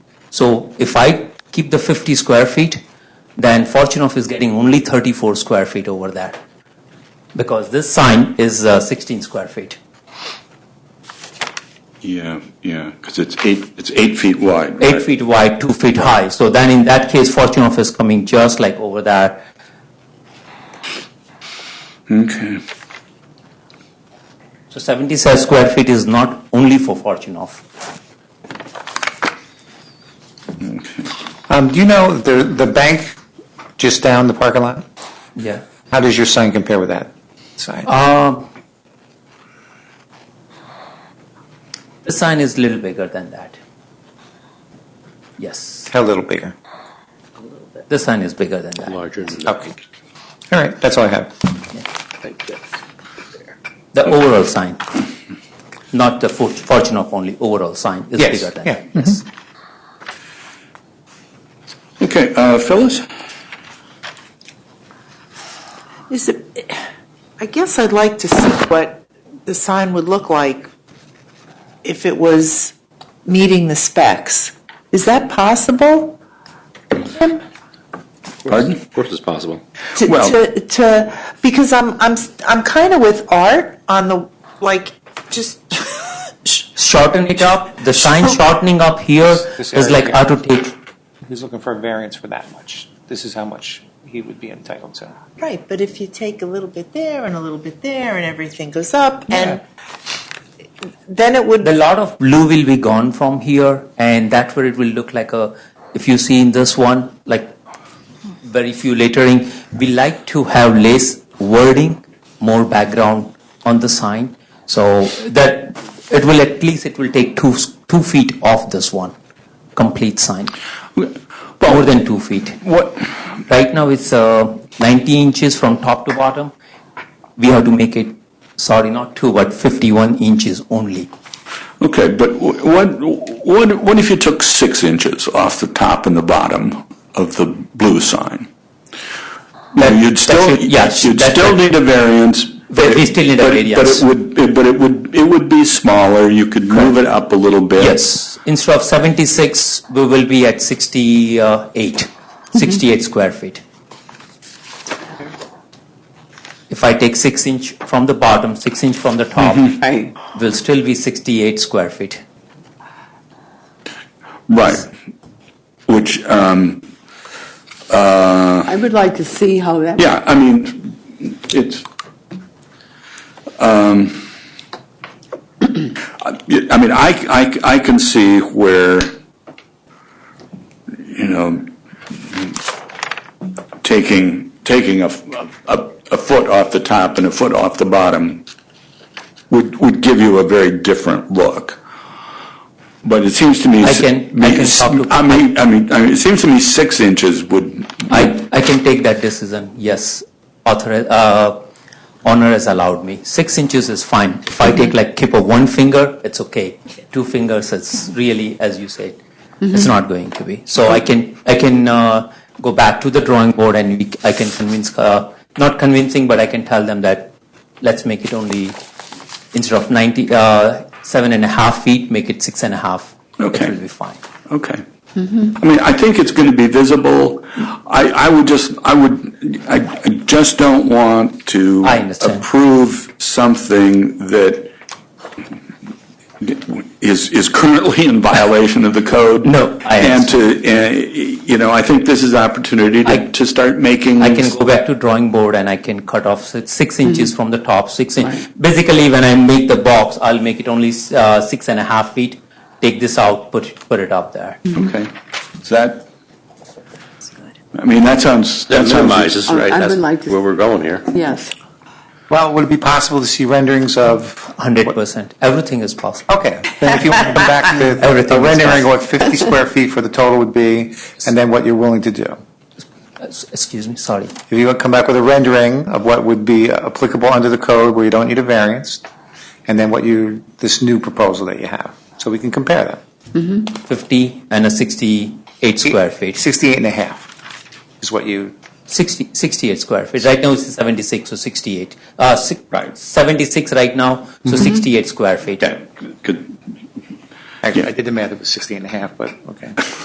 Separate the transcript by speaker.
Speaker 1: So if I keep the 50 square feet, then Fortunoff is getting only 34 square feet over that because this sign is uh, 16 square feet.
Speaker 2: Yeah, yeah, because it's eight, it's eight feet wide, right?
Speaker 1: Eight feet wide, two feet high. So then in that case, Fortunoff is coming just like over there.
Speaker 2: Okay,
Speaker 1: So 77 square feet is not only for Fortunoff.
Speaker 2: okay.
Speaker 3: Um, do you know the, the bank just down the parking lot?
Speaker 1: Yeah.
Speaker 3: How does your sign compare with that sign?
Speaker 1: Um, the sign is little bigger than that. Yes,
Speaker 3: How little bigger?
Speaker 1: the sign is bigger than that.
Speaker 4: larger than that.
Speaker 3: Okay. All right, that's all I have.
Speaker 4: Thank you.
Speaker 1: The overall sign, not the for- fortune of only overall sign, is
Speaker 3: Yes,
Speaker 1: bigger than
Speaker 3: yeah, Mm-hmm.
Speaker 1: that. Yes.
Speaker 2: Okay, uh, Phyllis?
Speaker 5: Is it, I guess I'd like to see what the sign would look like if it was meeting the specs. Is that possible?
Speaker 2: Pardon?
Speaker 4: Of course it's possible.
Speaker 5: To,
Speaker 2: Well-
Speaker 5: to, to, because I'm, I'm, I'm kind of with art on the, like, just,
Speaker 1: Shorten it up. The sign shortening up here
Speaker 3: This
Speaker 1: is
Speaker 3: area
Speaker 1: like
Speaker 3: here.
Speaker 1: how to take.
Speaker 3: He's looking for a variance for that much. This is how much he would be entitled to.
Speaker 5: right, but if you take a little bit there and a little bit there and everything goes up and then it would,
Speaker 1: The lot of blue will be gone from here, and that's where it will look like a. If you see in this one, like very few lettering, we like to have less wording, more background on the sign, so that it will at least it will take two s- two feet off this one, complete sign, more than two feet.
Speaker 2: What,
Speaker 1: Right now it's uh, 90 inches from top to bottom. We have to make it, sorry, not two, but 51 inches only.
Speaker 2: okay, but wh- what, what, what if you took six inches off the top and the bottom of the blue sign?
Speaker 1: That-
Speaker 2: You'd
Speaker 1: that
Speaker 2: still,
Speaker 1: should- yeah,
Speaker 2: you'd
Speaker 1: that-
Speaker 2: still need a variance. but-
Speaker 1: we still need a
Speaker 2: but-
Speaker 1: variance.
Speaker 2: But it would, but it would, it would be smaller, you could move it up a little bit.
Speaker 1: Yes, instead of 76, we will be at 68, 68 square feet. If I take 6 inch from the bottom, 6 inch from the top,
Speaker 3: Hey,
Speaker 1: will still be 68 square feet.
Speaker 2: Right, which, um, uh,
Speaker 6: I would like to see how that.
Speaker 2: Yeah, I mean, it's, um, I I mean, I, I, I can see where, you know, taking, taking a, a, a foot off the top and a foot off the bottom would, would give you a very different look. But it seems to me.
Speaker 1: I can- I can talk to-
Speaker 2: I mean, I mean, I mean, it seems to me six inches would.
Speaker 1: I, I can take that decision, yes. Author, uh, honor has allowed me. Six inches is fine. If I take like keep of one finger, it's okay. Two fingers, it's really, as you said, it's not going to be. So I can, I can uh, go back to the drawing board and we, I can convince, uh, not convincing, but I can tell them that let's make it only, instead of 90, uh, seven and a half feet, make it six and a half.
Speaker 2: Okay.
Speaker 1: It will be fine.
Speaker 2: Okay. I mean, I think it's going to be visible. I, I would just, I would, I I just don't want to
Speaker 1: I understand.
Speaker 2: approve something that is, is currently in violation of the code.
Speaker 1: No, I
Speaker 2: And to, uh, you know, I think this is opportunity
Speaker 1: I-
Speaker 2: to, to start making.
Speaker 1: I can go back to drawing board and I can cut off six, six inches from the top, six inch. Basically, when I make the box, I'll make it only uh, six and a half feet. Take this out, put put it up there.
Speaker 2: Okay. Is that, I mean, that sounds, that sounds.
Speaker 4: minimizes,
Speaker 6: I- I
Speaker 4: right?
Speaker 6: would
Speaker 4: That's
Speaker 6: like to-
Speaker 4: where we're going here.
Speaker 6: Yes.
Speaker 3: well, would it be possible to see renderings of?
Speaker 1: Hundred percent, everything is possible.
Speaker 3: Okay, then if you want to come back with
Speaker 1: Everything
Speaker 3: a
Speaker 1: is
Speaker 3: rendering of what 50 square feet for the total would be, and then what you're willing to do.
Speaker 1: Uh, s- Excuse me, sorry.
Speaker 3: If you come back with a rendering of what would be applicable under the code where you don't need a variance, and then what you, this new proposal that you have, so we can compare them.
Speaker 1: Fifty and a sixty-eight square feet.
Speaker 3: 68 and a half is what you,
Speaker 1: 60, 68 square feet. Right now it's seventy-six, so sixty-eight. Uh, six,
Speaker 2: Right.
Speaker 1: Seventy-six right now, so sixty-eight square feet.
Speaker 2: Yeah, good.
Speaker 3: actually,
Speaker 2: Yeah.
Speaker 3: I did the math, it was 68 and a half, but, okay.